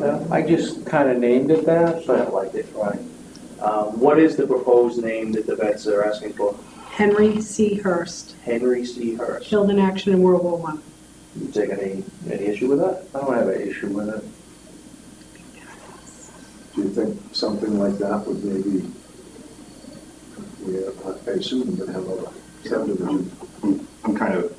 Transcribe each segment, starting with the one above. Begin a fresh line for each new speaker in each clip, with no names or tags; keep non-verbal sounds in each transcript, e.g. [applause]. Uh,
No, I just kind of named it that,
I
but
like it, right. Um, What is the proposed name that the vets are asking for?
Henry C. Hurst,
Henry C. Hurst.
killed in action in World War One.
You take any, any issue with that?
I don't have an issue with it.
Do you think something like that would maybe, we, I assume we're gonna have a subdivision.
I'm kind of,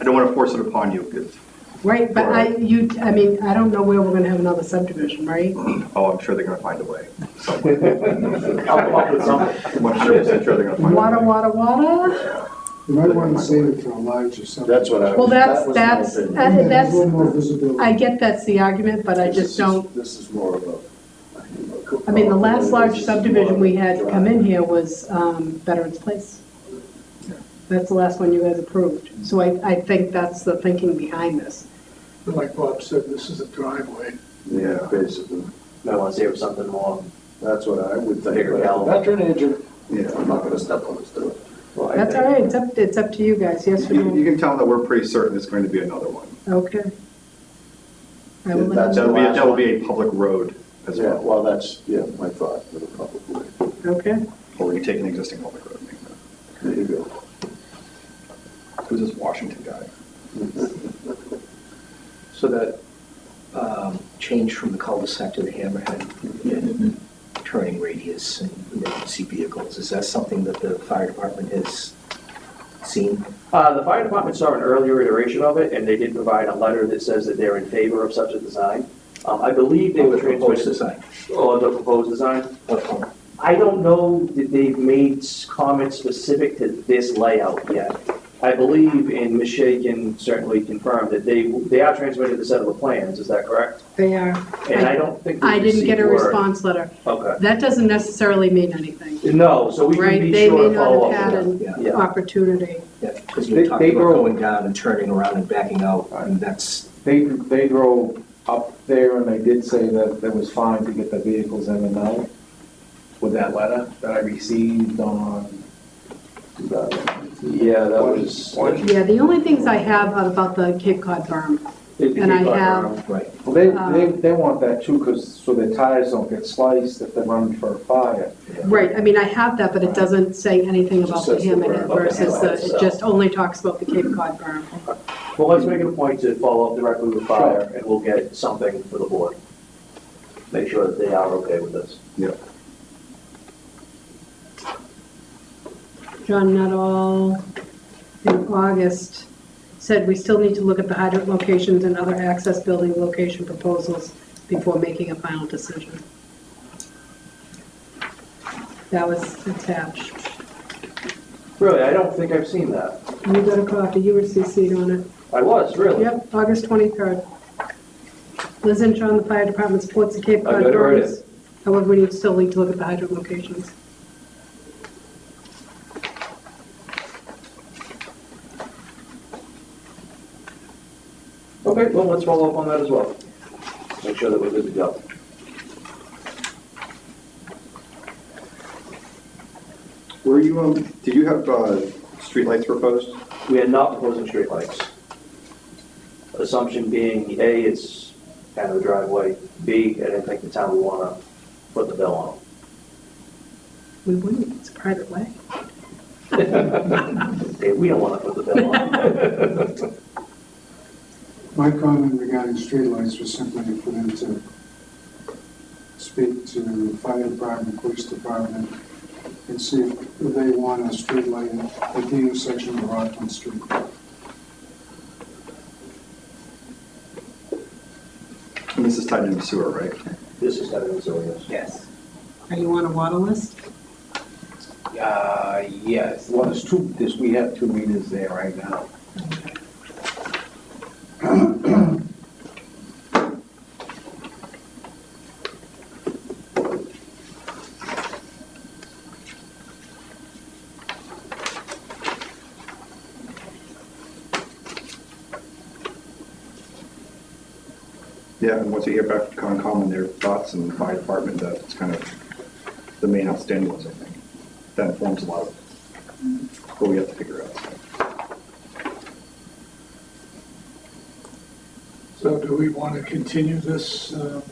I don't want to force it upon you, because,
Right, but I, you, I mean, I don't know where we're gonna have another subdivision, right?
oh, I'm sure they're going to find a way.
I'll [laughs] come up with something.
I'm not sure, I'm sure they're going to find a way.
Wada, wada, wada?
You might want to save it for a larger subdivision.
That's what I
Well,
was,
that's,
that
that's,
was my opinion.
I-
And there's
Uh, that's,
a little more visibility.
I get that's the argument, but I
This
just
is-
don't,
This is more of a.
I mean, the last large subdivision we had come in here was um, Veterans Place. That's the last one you guys approved. So I, I think that's the thinking behind this.
But Like Bob said, this is a driveway.
Yeah, basically,
I want to say it was something more.
that's what I would think,
Bigger
but as a
element.
veteran agent,
Yeah.
I'm not gonna step on his toe.
Well, I
That's
think-
all right, it's up, it's up to you guys, yes or
You
[laughs]
you
no?
can tell that we're pretty certain it's going to be another one.
Okay. I will let
That's-
That'll be, that'll be a public road as
Yeah,
well,
well, that's, yeah, my thought, for the public way.
them- okay.
or you take an existing public road. and make that.
There you go.
Who's this Washington guy?
So that um, change from the cul-de-sac to the hammerhead and turning radius and emergency vehicles, is that something that the fire department has seen?
Uh, The fire department saw an earlier iteration of it, and they did provide a letter that says that they're in favor of such a design. Um, I believe they
Or
were
the proposed
transmitted,
design?
or the proposed design.
Okay.
I don't know that they've made comments specific to this layout yet. I believe, and Ms. Shea can certainly confirm, that they, they are transmitted the set of the plans, is that correct?
They are.
And I don't think.
I didn't get a
we've received
response letter.
word.
That doesn't necessarily mean anything,
Okay. No, so we can
right?
be
They
sure
may
to
not
follow
have had
up.
yeah,
an
yeah.
opportunity.
Yeah, because
They-
you talked
they
about
grow-
going down and turning around and backing out, and that's,
They, they drove up there and they did say that it was fine to get the vehicles in and out with that letter that I received on,
Do that.
yeah, that
What
was.
is-
Well,
Yeah, the only things I have are about the Cape Cod berm. And I have,
right.
They, they,
um,
they want that too, because, so their tires don't get sliced if they're running for a fire.
right, I mean, I have that, but it doesn't say anything about the
says the
hammerhead
berm.
versus the,
Okay.
it just only talks about the Cape Cod berm.
Well, let's make it a point to follow up directly with fire, and we'll get something for the board. Make sure that they are okay with this.
John Nuttall in August said, "We still need to look at the hydrant locations and other access building location proposals before making a final decision." That was attached.
Really, I don't think I've seen that.
You got a copy, you were CC'd on it.
I was, really.
Yep, August 23rd. Liz and John, the fire department supports the Cape
I
Cod
got it right.
berms. However, we need still need to look at the hydrant locations.
Okay, well, let's follow up on that as well. Make sure that we're good to go.
Were you, um, did you have, uh, streetlights proposed?
We are not proposing streetlights. Assumption being, A, it's kind of a driveway, B, I didn't think the town would want to put the bill on.
We wouldn't, it's a private way.
Okay, we don't want to put the bill on.
My comment regarding streetlights was simply for them to speak to the fire department, police department, and see if they want a streetlight at the intersection of Rockland Street.
And this is tied into sewer, right?
This is kind of insidious.
Yes. Are you on a water list?
Uh, yes, well, there's two, this, we have two meters there right now.
Yeah, and once you hear back from Concom and their thoughts and the fire department, that's kind of the main outstanding ones, I think. That informs a lot of what we have to figure out.
So do we want to continue this, um,